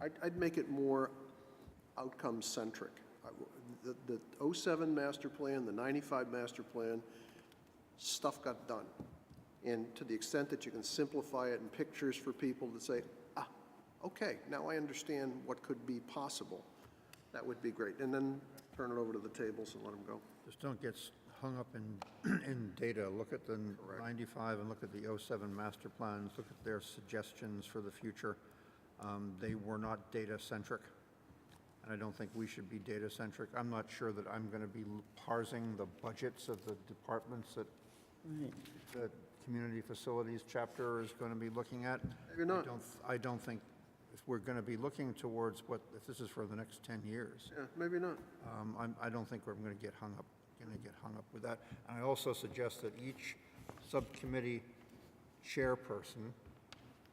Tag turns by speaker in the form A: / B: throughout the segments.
A: I'd, I'd make it more outcome-centric. I w- The, the '07 master plan, the '95 master plan, stuff got done. And to the extent that you can simplify it in pictures for people to say, ah, okay, now I understand what could be possible, that would be great. And then turn it over to the tables and let them go.
B: Just don't get s- hung up in, in data. Look at the 95 and look at the 07 master plans, look at their suggestions for the future. Um, They were not data-centric, and I don't think we should be data-centric. I'm not sure that I'm going to be l- parsing the budgets of the departments that the Community Facilities chapter is going to be looking at.
A: You're not.
B: I don't, I don't think, if we're going to be looking towards what, if this is for the next 10 years,
A: Yeah, maybe not.
B: um, I'm- I don't think we're going to get hung up, going to get hung up with that. And I also suggest that each subcommittee chairperson,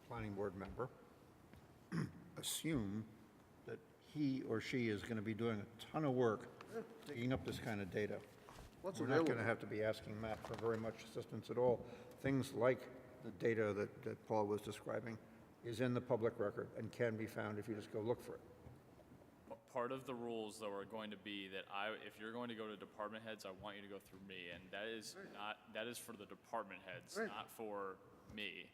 B: planning board member, assume that he or she is going to be doing a ton of work digging up this kind of data.
A: What's
B: We're not going to
A: available?
B: have to be asking Matt for very much assistance at all. Things like the data that, that Paul was describing is in the public record and can be found if you just go look for it.
C: Part of the rules, though, are going to be that I, if you're going to go to department heads, I want you to go through me, and that is not, that is for the department heads,
A: Right.
C: not for me.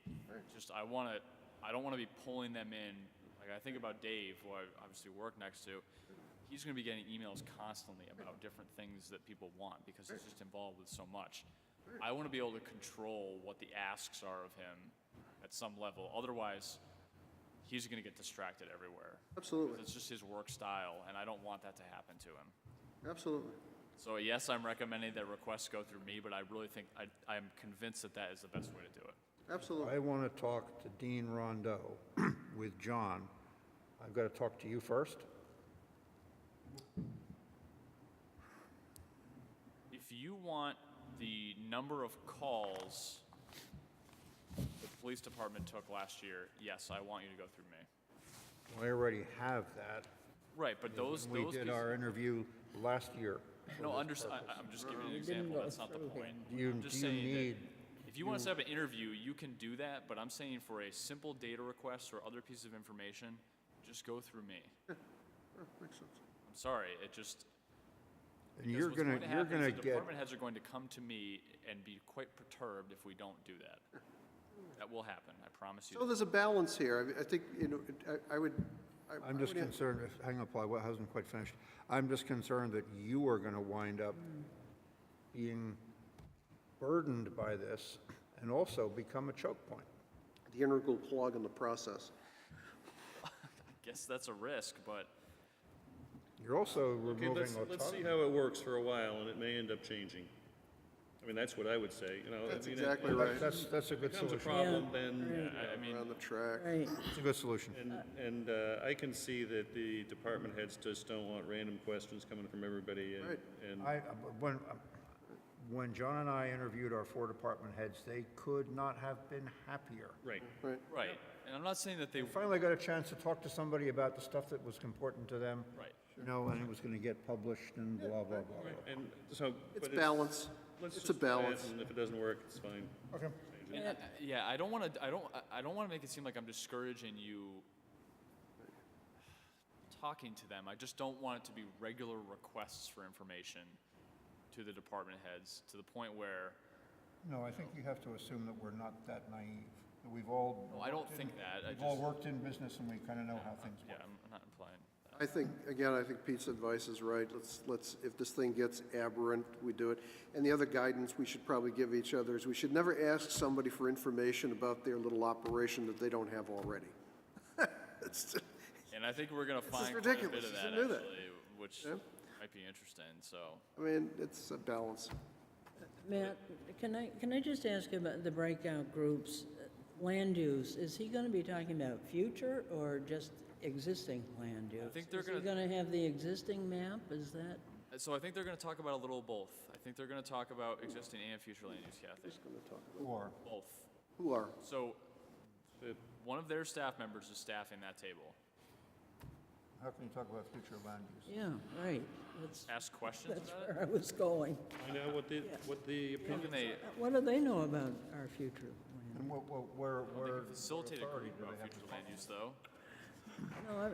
C: Just, I want to, I don't want to be pulling them in, like, I think about Dave, who I obviously work next to, he's going to be getting emails constantly about different things that people want, because he's just involved with so much. I want to be able to control what the asks are of him at some level, otherwise, he's going to get distracted everywhere.
A: Absolutely,
C: It's just his work style, and I don't want that to happen to him.
A: absolutely.
C: So yes, I'm recommending that requests go through me, but I really think, I, I'm convinced that that is the best way to do it.
A: Absolutely.
B: I want to talk to Dean Rondo with John. I've got to talk to you first.
C: If you want the number of calls the police department took last year, yes, I want you to go through me.
B: I already have that.
C: Right, but those,
B: We
C: those.
B: did
C: pieces-
B: our interview last year.
C: No, underst, I, I'm just giving you an example, that's not the point.
B: Do you-
C: I'm just
B: do you
C: saying that
B: need-
C: If you wanna set up an interview, you can do that, but I'm saying for a simple data request or other piece of information, just go through me.
A: Makes sense.
C: I'm sorry, it just,
B: And
C: Because
B: you're
C: what's
B: gonna,
C: going to
B: you're
C: happen is
B: gonna get,
C: the Department heads are going to come to me and be quite perturbed if we don't do that. That will happen, I promise
A: So
C: you.
A: there's a balance here. I mean, I think, you know, I- I would. I- I
B: I'm just
A: would-
B: concerned, if- hang on, Paul, I hasn't quite finished. I'm just concerned that you are gonna wind up being burdened by this and also become a choke point.
A: The integral plug in the process.
C: Guess that's a risk, but
B: You're also
D: Okay,
B: removing
D: let's, let's see
B: autonomy.
D: how it works for a while, and it may end up changing. I mean, that's what I would say, you know. I
A: That's
D: mean, it-
A: exactly
D: if
A: right.
B: That's, that's a
D: it
B: good
D: Becomes a
B: solution.
D: problem, then,
C: I, I mean,
A: Around the track.
E: Right,
B: It's a good solution.
D: and, and uh, I can see that the department heads just don't want random questions coming from everybody, and,
A: Right.
D: and
B: I, uh, when, when John and I interviewed our four department heads, they could not have been happier.
D: right.
A: Right.
C: right, and I'm not saying that they,
B: They Finally got a chance to talk to somebody about the stuff that was important to them.
C: Right.
B: You know, and it was gonna get published and blah, blah, blah, blah.
D: And so,
A: It's
D: but
A: balance.
D: let's
A: It's a
D: just try it,
A: balance.
D: And if it doesn't work, it's fine.
B: Okay.
C: and I- I- yeah, I don't wanna, I don't, I- I don't wanna make it seem like I'm discouraging you talking to them, I just don't want it to be regular requests for information to the department heads, to the point where,
B: No, I think you have to assume that we're not that naive, that we've all.
C: No, I don't
B: worked in-
C: think that. I
B: We've all
C: just-
B: worked in business and we kinda know how things
C: yeah,
B: work.
C: I'm not implying.
A: I think, again, I think Pete's advice is right. Let's, let's, if this thing gets aberrant, we do it. And the other guidance we should probably give each other is we should never ask somebody for information about their little operation that they don't have already. It's-
C: And I think we're gonna
A: is
C: find quite a bit
A: ridiculous.
C: of
A: You
C: that
A: should know that.
C: actually, which
A: Yeah.
C: might be interesting, so.
A: I mean, it's a balance.
E: Matt, can I, can I just ask about the breakout groups? Land use, is he gonna be talking about future or just existing land use?
C: think they're
E: Is he
C: gonna-
E: gonna have the existing map, is that?
C: Uh, So I think they're going to talk about a little of both. I think they're going to talk about existing and future land use, Kathy.
B: Or,
C: Both.
A: Who are?
C: So one of their staff members is staffing that table.
B: how can you talk about future land use?
E: Yeah, right, that's,
C: Ask questions
E: that's
C: about it.
E: where I was going.
D: Find out what the, what the
C: How
D: opinion,
C: can they
E: Uh, What do they know about our future land?
B: And what, what, where, where?
C: facilitate a
B: authority
C: group
B: do they have
C: about
B: to
C: future land use, though?
E: No,